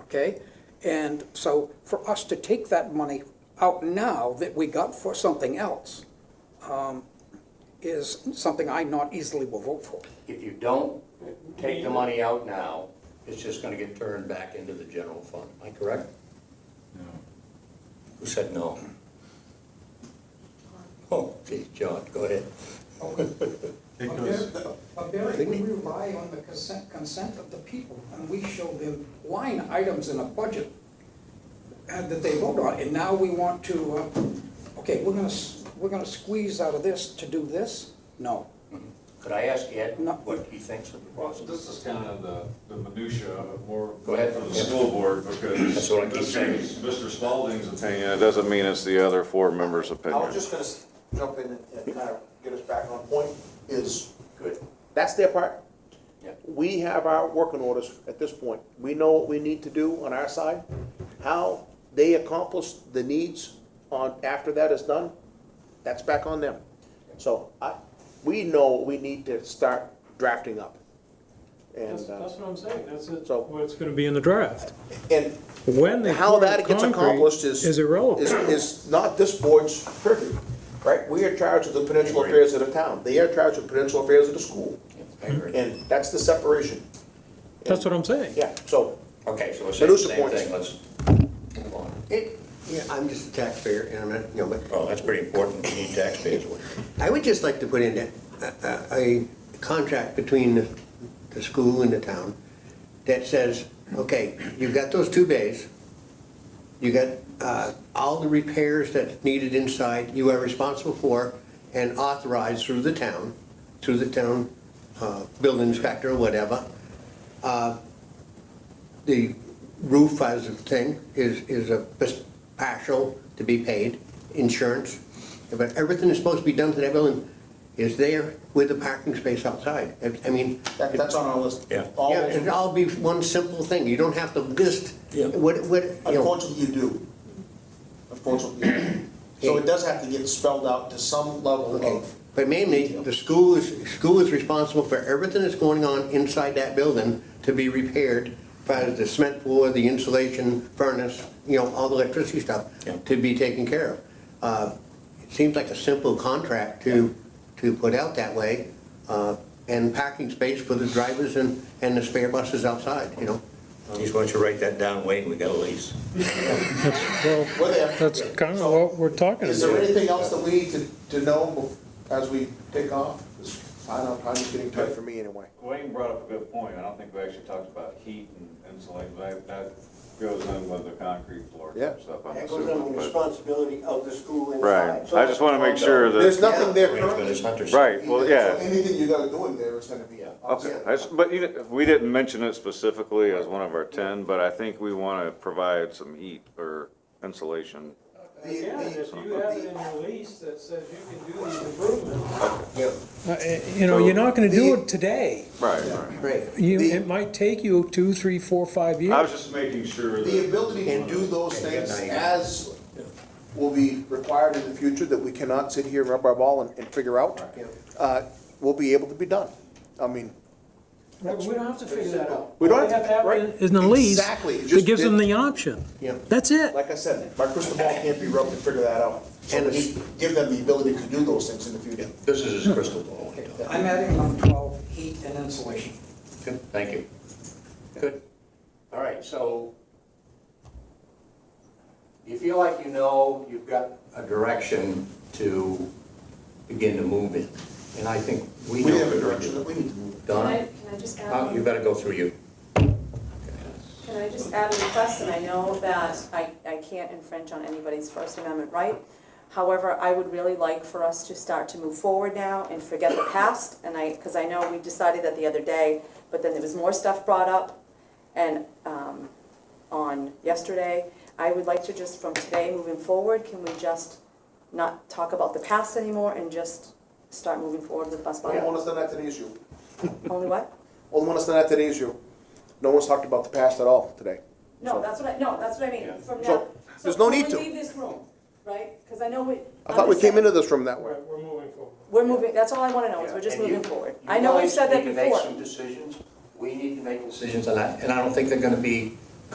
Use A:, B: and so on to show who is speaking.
A: okay? And so for us to take that money out now that we got for something else um, is something I not easily will vote for.
B: If you don't take the money out now, it's just gonna get turned back into the general fund, am I correct? Who said no? Oh, geez, John, go ahead.
C: It goes,
A: But Barry, we rely on the consent, consent of the people, and we show them line items in a budget uh, that they vote on, and now we want to, uh, okay, we're gonna, s- we're gonna squeeze out of this to do this? No.
B: Could I ask Ed
A: No.
B: what he thinks of the
D: Well,
B: process?
D: this is kind of the, the minutia of more
B: Go ahead.
D: for the school board, because.
B: That's what I keep
D: this
B: saying.
D: is Mr. Spalding's opinion,
E: It doesn't mean it's the other four members'
F: I was
E: opinion.
F: just gonna s- jump in and- and kind of get us back on point, is,
B: Good.
F: that's their part.
B: Yeah.
F: We have our working orders at this point. We know what we need to do on our side. How they accomplish the needs on, after that is done, that's back on them. So I, we know what we need to start drafting up.
G: That's,
F: And, uh,
G: that's what I'm saying, that's it,
F: So-
G: what's gonna be in the draft.
F: and
G: When they
F: how
G: pour
F: that
G: the
F: gets
G: concrete
F: accomplished is.
G: is irrelevant.
F: Is, is not this board's purview, right? We are charged with the Peninsula affairs of the town. They are charged with Peninsula affairs of the school.
B: I agree.
F: And that's the separation.
G: That's what I'm saying.
F: Yeah, so,
B: Okay, so we're saying the
F: Minutia
B: same
F: points.
B: thing, let's move on.
H: It, yeah, I'm just a taxpayer, and I'm not, you know, but
B: Oh, that's pretty important, we need taxpayers.
H: I would just like to put in that, a, a a contract between the, the school and the town that says, okay, you've got those two bays, you got, uh, all the repairs that's needed inside, you are responsible for and authorized through the town, through the town, uh, building inspector or whatever. Uh, The roof as a thing is, is a bes- partial to be paid, insurance. But everything that's supposed to be done to that building is there with the parking space outside. I- I mean,
F: that, that's on our list.
B: Yeah.
F: All
H: yeah,
F: those-
H: it'd all be one simple thing, you don't have to list
B: Yeah.
H: what, what, you know.
F: Unfortunately, you do. Unfortunately, you do. So it does have to get spelled out to some level
H: Okay,
F: of,
H: But mainly, the school is, school is responsible for everything that's going on inside that building to be repaired, by the cement floor, the insulation, furnace, you know, all the electricity stuff,
B: Yeah.
H: to be taken care of. Uh, It seems like a simple contract to, to put out that way, uh, and parking space for the drivers and, and the spare buses outside, you know?
B: Just want you to write that down, Wayne, we got a lease.
G: That's, well,
F: we're there.
G: that's kind of what we're talking
F: Is there
G: about.
F: anything else that we need to, to know bef- as we take off? I don't, I'm just getting tight for me anyway.
D: Wayne brought up a good point, I don't think we actually talked about heat and insulation, that, that goes in with the concrete floor
F: Yeah.
D: and stuff, I'm assuming. but-
H: responsibility of the school
E: Right, I just want to make sure
F: There's
E: that,
F: nothing there
B: Arrangement
F: currently.
B: is Hunter's.
E: right, well,
F: So
E: yeah.
F: Anything you gotta do in there is gonna be.
E: Okay, I s- but you, di- we didn't mention it specifically as one of our ten, but I think we want to provide some heat or insulation.
G: Yeah, if you have it in your lease that says you can do these improvements.
H: Yeah,
G: Uh, You know, you're not gonna do it today.
E: Right, right.
H: right.
G: You, it might take you two, three, four, five
E: I
G: years.
E: was just,
D: Just making sure
F: The
D: that,
F: ability to do those
B: Yeah,
F: things
B: yeah, yeah.
F: as will be required in the future that we cannot sit here and rub our ball and, and figure out, uh, will be able to be done. I mean,
G: Right, but We don't have to figure that out.
F: We don't
G: All
F: have to-
G: have
F: right.
G: in- In the lease,
F: Exactly, you
G: that
F: just
G: gives them
F: did-
G: the option.
H: Yeah.
G: That's it.
F: like I said, my crystal ball can't be rubbed to figure that out. So
H: And
F: we need to give them the ability to do those things in the future.
B: This is his crystal ball. he does.
A: I'm adding number twelve, heat and insulation.
B: Good, thank you. Good. All right, so you feel like you know you've got a direction to begin to move in, and I think we
F: We
B: know
F: have a
B: the direction.
F: direction that we need to move.
I: Can I,
B: Donna,
I: can I just
B: uh,
I: add,
B: you
I: one-
B: better go through you.
I: can I just add a request, and I know that I, I can't infringe on anybody's First Amendment right. However, I would really like for us to start to move forward now and forget the past, and I, because I know we decided that the other day, but then there was more stuff brought up, and, um, on yesterday. I would like to just, from today moving forward, can we just not talk about the past anymore and just start moving forward with bus
F: Only one
I: bylaw?
F: that's done that today is you.
I: Only what?
F: Only one that's done that today is you. No one's talked about the past at all today.
I: No, that's what I, no, that's what I mean, from
F: So,
I: now.
F: there's no
I: when
F: need to.
I: we leave this room, right, because I know we.
F: I thought we came into this room that way.
G: We're moving forward.
I: We're moving, that's all I want to know, is we're just
B: And you-
I: moving forward.
B: you
I: I know we've
B: guys
I: said that
B: need to make some
I: before.
B: decisions, we need to make decisions, and I, and I don't think they're gonna be